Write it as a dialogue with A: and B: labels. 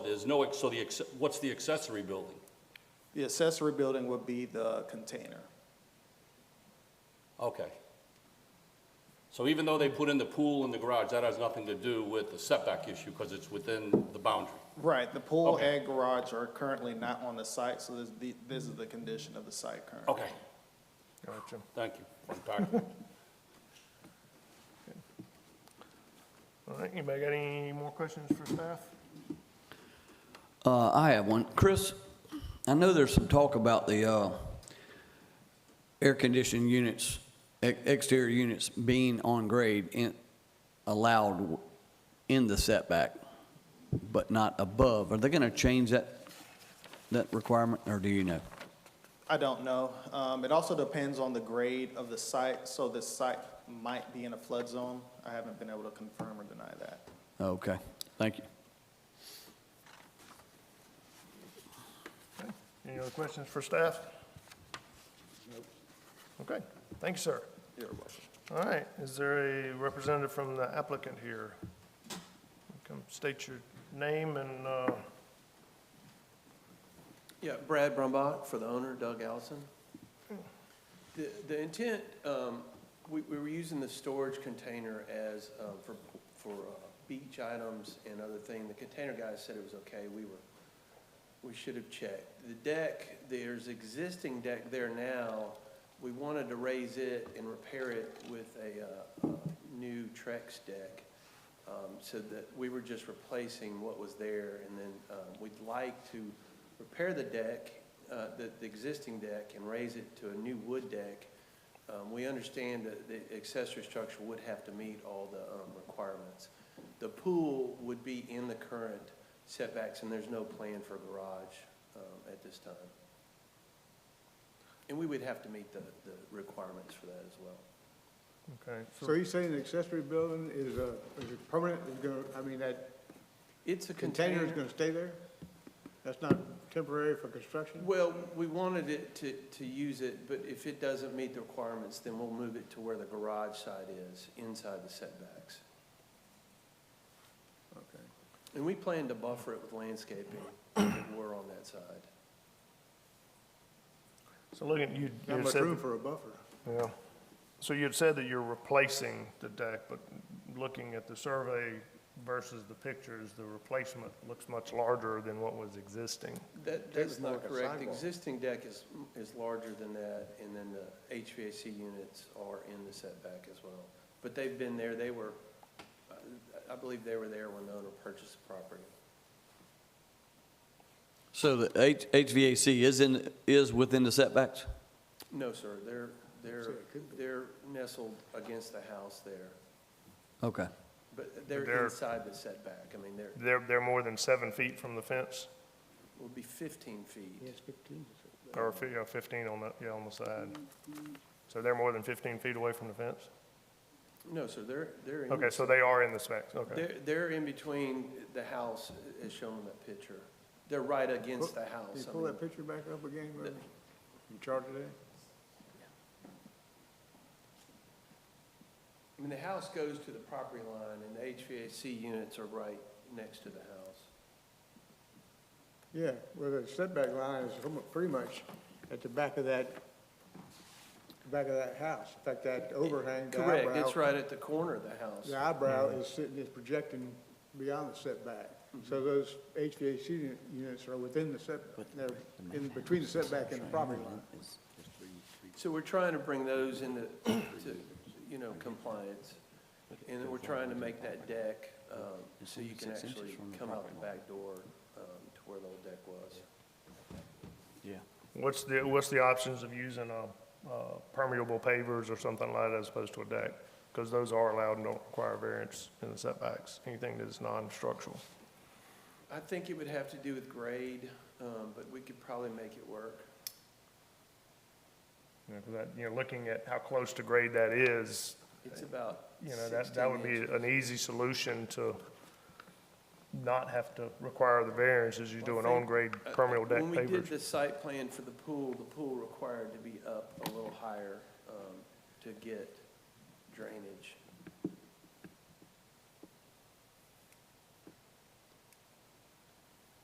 A: There's no, ex- so the, ex- what's the accessory building?
B: The accessory building would be the container.
A: Okay. So even though they put in the pool and the garage, that has nothing to do with the setback issue because it's within the boundary.
B: Right, the pool
A: Okay.
B: and garage are currently not on the site, so this, the- this is the condition of the site currently.
A: Okay,
C: Gotcha.
A: thank you for unpacking.
C: All right, anybody got any more questions for staff?
D: Uh, I have one. Chris, I know there's some talk about the, uh, air conditioning units, ex- exterior units being on grade in, allowed w- in the setback, but not above. Are they gonna change that, that requirement, or do you know?
B: I don't know. Um, it also depends on the grade of the site, so this site might be in a flood zone. I haven't been able to confirm or deny that.
D: Okay, thank you.
C: Any other questions for staff? Okay, thank you, sir.
B: You're welcome.
C: All right, is there a representative from the applicant here? Come state your name and, uh,
E: Yeah, Brad Brumbach for the owner, Doug Allison. The, the intent, um, we, we were using the storage container as, um, for, for uh, beach items and other thing. The container guys said it was okay, we were, we should have checked. The deck, there's existing deck there now, we wanted to raise it and repair it with a, uh, uh, new Trex deck. Um, so that we were just replacing what was there and then, uh, we'd like to repair the deck, uh, the, the existing deck and raise it to a new wood deck. Um, we understand that the accessory structure would have to meet all the, um, requirements. The pool would be in the current setbacks and there's no plan for garage, um, at this time. And we would have to meet the, the requirements for that as well.
C: okay,
F: So
C: so,
F: you're saying the accessory building is, uh, is it permanent, is gonna, I mean, that
E: It's a
F: container is gonna stay there? That's not temporary for construction?
E: Well, we wanted it to, to use it, but if it doesn't meet the requirements, then we'll move it to where the garage side is, inside the setbacks.
F: Okay.
E: And we plan to buffer it with landscaping if we're on that side.
C: so looking, you,
F: Not
C: you
F: much
C: said,
F: room for a buffer.
C: yeah. So you had said that you're replacing the deck, but looking at the survey versus the pictures, the replacement looks much larger than what was existing.
E: That,
F: Deck is
E: that's
F: more
E: not
F: like a
E: correct. The
F: sidewalk.
E: existing deck is, is larger than that, and then the HVAC units are in the setback as well. But they've been there, they were, uh, I believe they were there when the owner purchased the property.
D: So the H- HVAC is in, is within the setbacks?
E: No, sir, they're,
F: So
E: they're,
F: it could be.
E: they're nestled against the house there.
D: Okay.
E: But
C: They're-
E: they're inside the setback, I mean, they're,
C: They're, they're more than seven feet from the fence,
E: would be fifteen feet.
F: fifteen.
C: or fi- yeah, fifteen on the, yeah, on the side. So they're more than fifteen feet away from the fence?
E: No, sir, they're, they're, in-
C: Okay, so they are in the specs, okay.
E: they're, they're in between the house as shown in that picture. They're right against the house.
F: Can you
E: I
F: pull
E: mean,
F: that picture back up again, Murphy? You charted it?
E: I mean, the house goes to the property line and the HVAC units are right next to the house.
F: Yeah, well, the setback line is almo- pretty much at the back of that, back of that house. In fact, that overhang, the
E: Correct,
F: eyebrow.
E: it's right at the corner of the house.
F: The eyebrow is sitting, is projecting beyond the setback. So those HVAC uni- units are within the setback, they're in between the setback and the property line.
E: So we're trying to bring those into, to, you know, compliance. And we're trying to make that deck, um, so you can
D: Six inches
E: actually
D: from the
E: come out
D: property
E: the
D: line.
E: back door, um, to where the old deck was.
D: Yeah.
C: What's the, what's the options of using a, uh, permeable pavers or something like that as opposed to a deck? Because those are allowed and don't require variance in the setbacks, anything that is non-structural.
E: I think it would have to do with grade, um, but we could probably make it work.
C: You know, 'cause that, you know, looking at how close to grade that is,
E: It's about
C: you know, that, that would be
E: 16 inches.
C: an easy solution to not have to require the variance as you do an on-grade
E: Uh,
C: permeable deck
E: When we did
C: pavers.
E: the site plan for the pool, the pool required to be up a little higher, um, to get drainage.